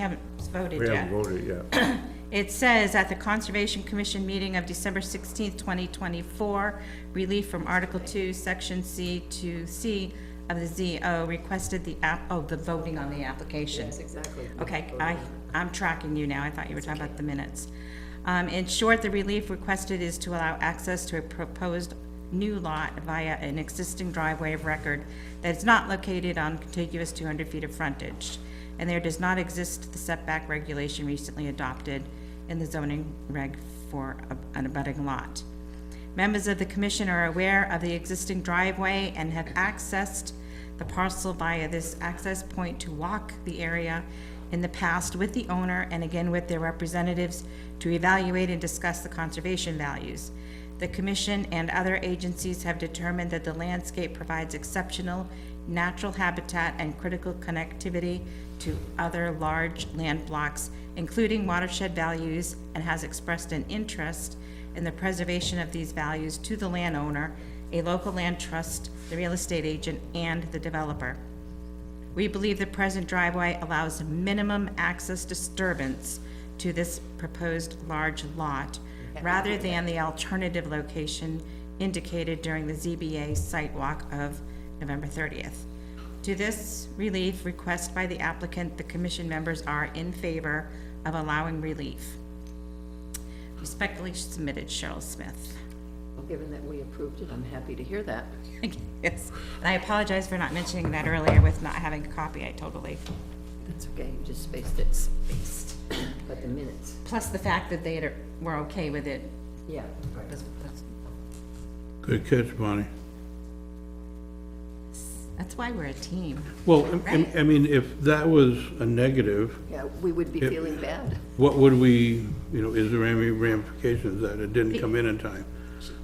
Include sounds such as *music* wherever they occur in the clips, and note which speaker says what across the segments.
Speaker 1: haven't voted
Speaker 2: We haven't
Speaker 1: yet.
Speaker 2: voted yet.
Speaker 1: It says, at the Conservation Commission meeting of December sixteenth, twenty twenty-four, relief from Article Two, Section C to C of the ZO requested the app, oh, the voting on the application. Yes, exactly. Okay, I, I'm tracking you now, I thought you were talking about the minutes. Um, in short, the relief requested is to allow access to a proposed new lot via an existing driveway of record that is not located on contiguous two hundred feet of frontage, and there does not exist the setback regulation recently adopted in the zoning reg for a- an abutting lot. Members of the commission are aware of the existing driveway and have accessed the parcel via this access point to walk the area in the past with the owner and again with their representatives to evaluate and discuss the conservation values. The commission and other agencies have determined that the landscape provides exceptional natural habitat and critical connectivity to other large land blocks, including watershed values, and has expressed an interest in the preservation of these values to the landowner, a local land trust, the real estate agent, and the developer. We believe the present driveway allows minimum access disturbance to this proposed large lot, rather than the alternative location indicated during the ZBA site walk of November 30th. To this relief request by the applicant, the commission members are in favor of allowing relief. Respectfully submitted, Cheryl Smith.
Speaker 3: Well, Given that we approved it, I'm happy to hear that.
Speaker 1: *laughs* Yes, and I apologize for not mentioning that earlier with not having a copy, I totally
Speaker 3: That's okay, you just spaced it.
Speaker 1: spaced.
Speaker 3: But the minutes,
Speaker 1: Plus the fact that they had- were okay with it.
Speaker 3: yeah.
Speaker 1: was- was-
Speaker 2: Good catch, Bonnie.
Speaker 1: That's why we're a team.
Speaker 2: Well, I- I I mean, if that was a negative,
Speaker 3: Yeah, we would be
Speaker 2: Yep.
Speaker 3: feeling bad.
Speaker 2: what would we, you know, is there any ramifications that it didn't come in in time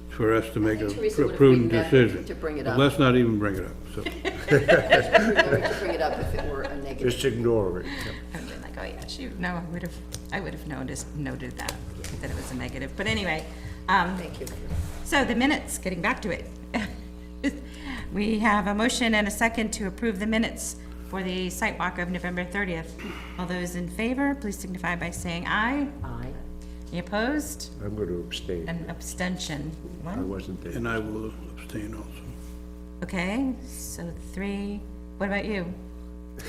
Speaker 2: for us to make a
Speaker 3: Teresa would've
Speaker 2: prudent
Speaker 3: been back
Speaker 2: decision?
Speaker 3: to bring it
Speaker 2: But
Speaker 3: up.
Speaker 2: Let's not even bring it up, so. *laughs*
Speaker 3: We could bring it up if it were a negative.
Speaker 4: Just ignore it.
Speaker 1: I would been like, oh yeah, shoot, no, I would have, I would have noticed, noted that, that it was a negative. But anyway, um,
Speaker 3: Thank you.
Speaker 1: so the minutes, getting back to it. *laughs* We have a motion and a second to approve the minutes for the site walk of November 30th. All those in favor, please signify by saying aye.
Speaker 3: Aye.
Speaker 1: Any opposed?
Speaker 4: I'm going to abstain.
Speaker 1: An abstention.
Speaker 4: I
Speaker 1: One.
Speaker 4: wasn't there.
Speaker 2: And I will abstain also.
Speaker 1: Okay, so three. What about you?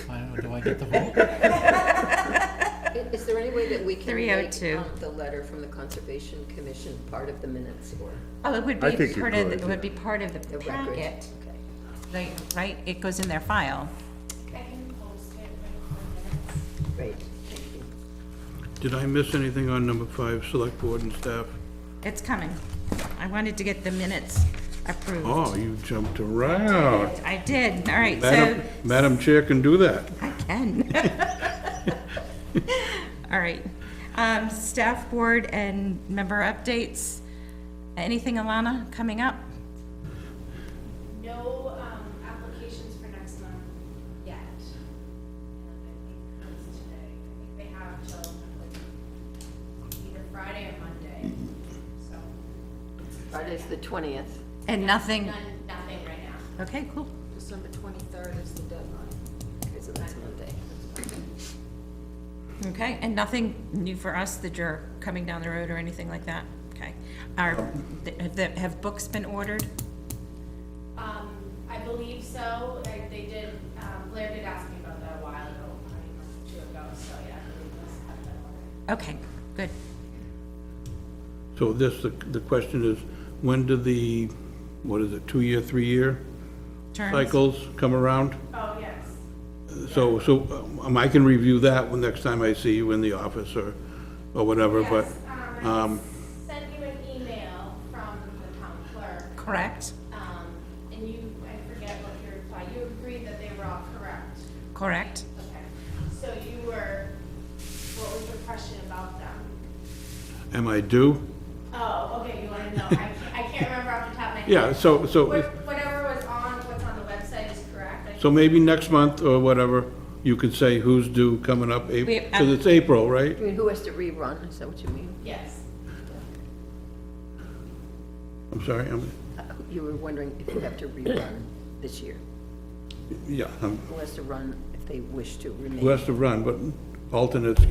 Speaker 5: I don't know, do I get the vote?
Speaker 3: I- Is there any way that we can make
Speaker 1: 302.
Speaker 3: um, the letter from the Conservation Commission part of the minutes or
Speaker 1: Oh, it would
Speaker 4: I
Speaker 1: be
Speaker 4: think you
Speaker 1: part of, the-
Speaker 4: could,
Speaker 1: it would be
Speaker 4: yeah.
Speaker 1: part of
Speaker 3: the
Speaker 1: the
Speaker 3: record?
Speaker 1: packet,
Speaker 3: Okay.
Speaker 1: like, right? It goes in their file.
Speaker 6: I can post it right for minutes.
Speaker 3: Great, thank you.
Speaker 2: Did I miss anything on number five, select board and staff?
Speaker 1: It's coming. I wanted to get the minutes approved.
Speaker 2: Oh, you jumped around.
Speaker 1: I did, all right, so
Speaker 2: Madam, Madam Chair can do that.
Speaker 1: I can.
Speaker 4: *laughs*
Speaker 1: All right. Um, staff board and member updates. Anything, Alana, coming up?
Speaker 6: No, um, applications for next month yet. And I think it's today, I think they have till either Friday or Monday, so.
Speaker 3: Friday's the 20th.
Speaker 1: And nothing?
Speaker 6: None, nothing right now.
Speaker 1: Okay, cool.
Speaker 3: December 23rd is the deadline. Okay, so that's Monday.
Speaker 1: Okay, and nothing new for us that you're coming down the road or anything like that? Okay. Are, th- th- have books been ordered?
Speaker 6: Um, I believe so, I, they did, um, Blair did ask me about that a while ago, probably a month or two ago, so yeah, I believe those have been ordered.
Speaker 1: Okay, good.
Speaker 2: So this, the the question is, when do the, what is it, two-year, three-year
Speaker 1: Terms?
Speaker 2: cycles come around?
Speaker 6: Oh, yes.
Speaker 2: So, so um, I can review that when, next time I see you in the office or, or whatever, but,
Speaker 6: Yes,
Speaker 2: um,
Speaker 6: um, I sent you an email from the town clerk,
Speaker 1: Correct,
Speaker 6: um, and you, I forget what your reply, you agreed that they were all correct.
Speaker 1: correct.
Speaker 6: Okay, so you were, what was your question about them?
Speaker 2: am I due?
Speaker 6: Oh, okay, you wanna know, I can't, I can't remember off the top of my head.
Speaker 2: Yeah, so, so,
Speaker 6: What- Whatever was on, what's on the website is correct. I-
Speaker 2: so maybe next month or whatever, you could say who's due coming up,
Speaker 1: We-
Speaker 2: because it's April, right?
Speaker 3: I mean, who has to rerun, is that what you mean?
Speaker 6: Yes,
Speaker 2: I'm sorry, I'm,
Speaker 3: Uh, You were wondering if you have to rerun this year,
Speaker 2: yeah, I'm,
Speaker 3: who has to run if they wish to remain?
Speaker 2: who has to run, but alternates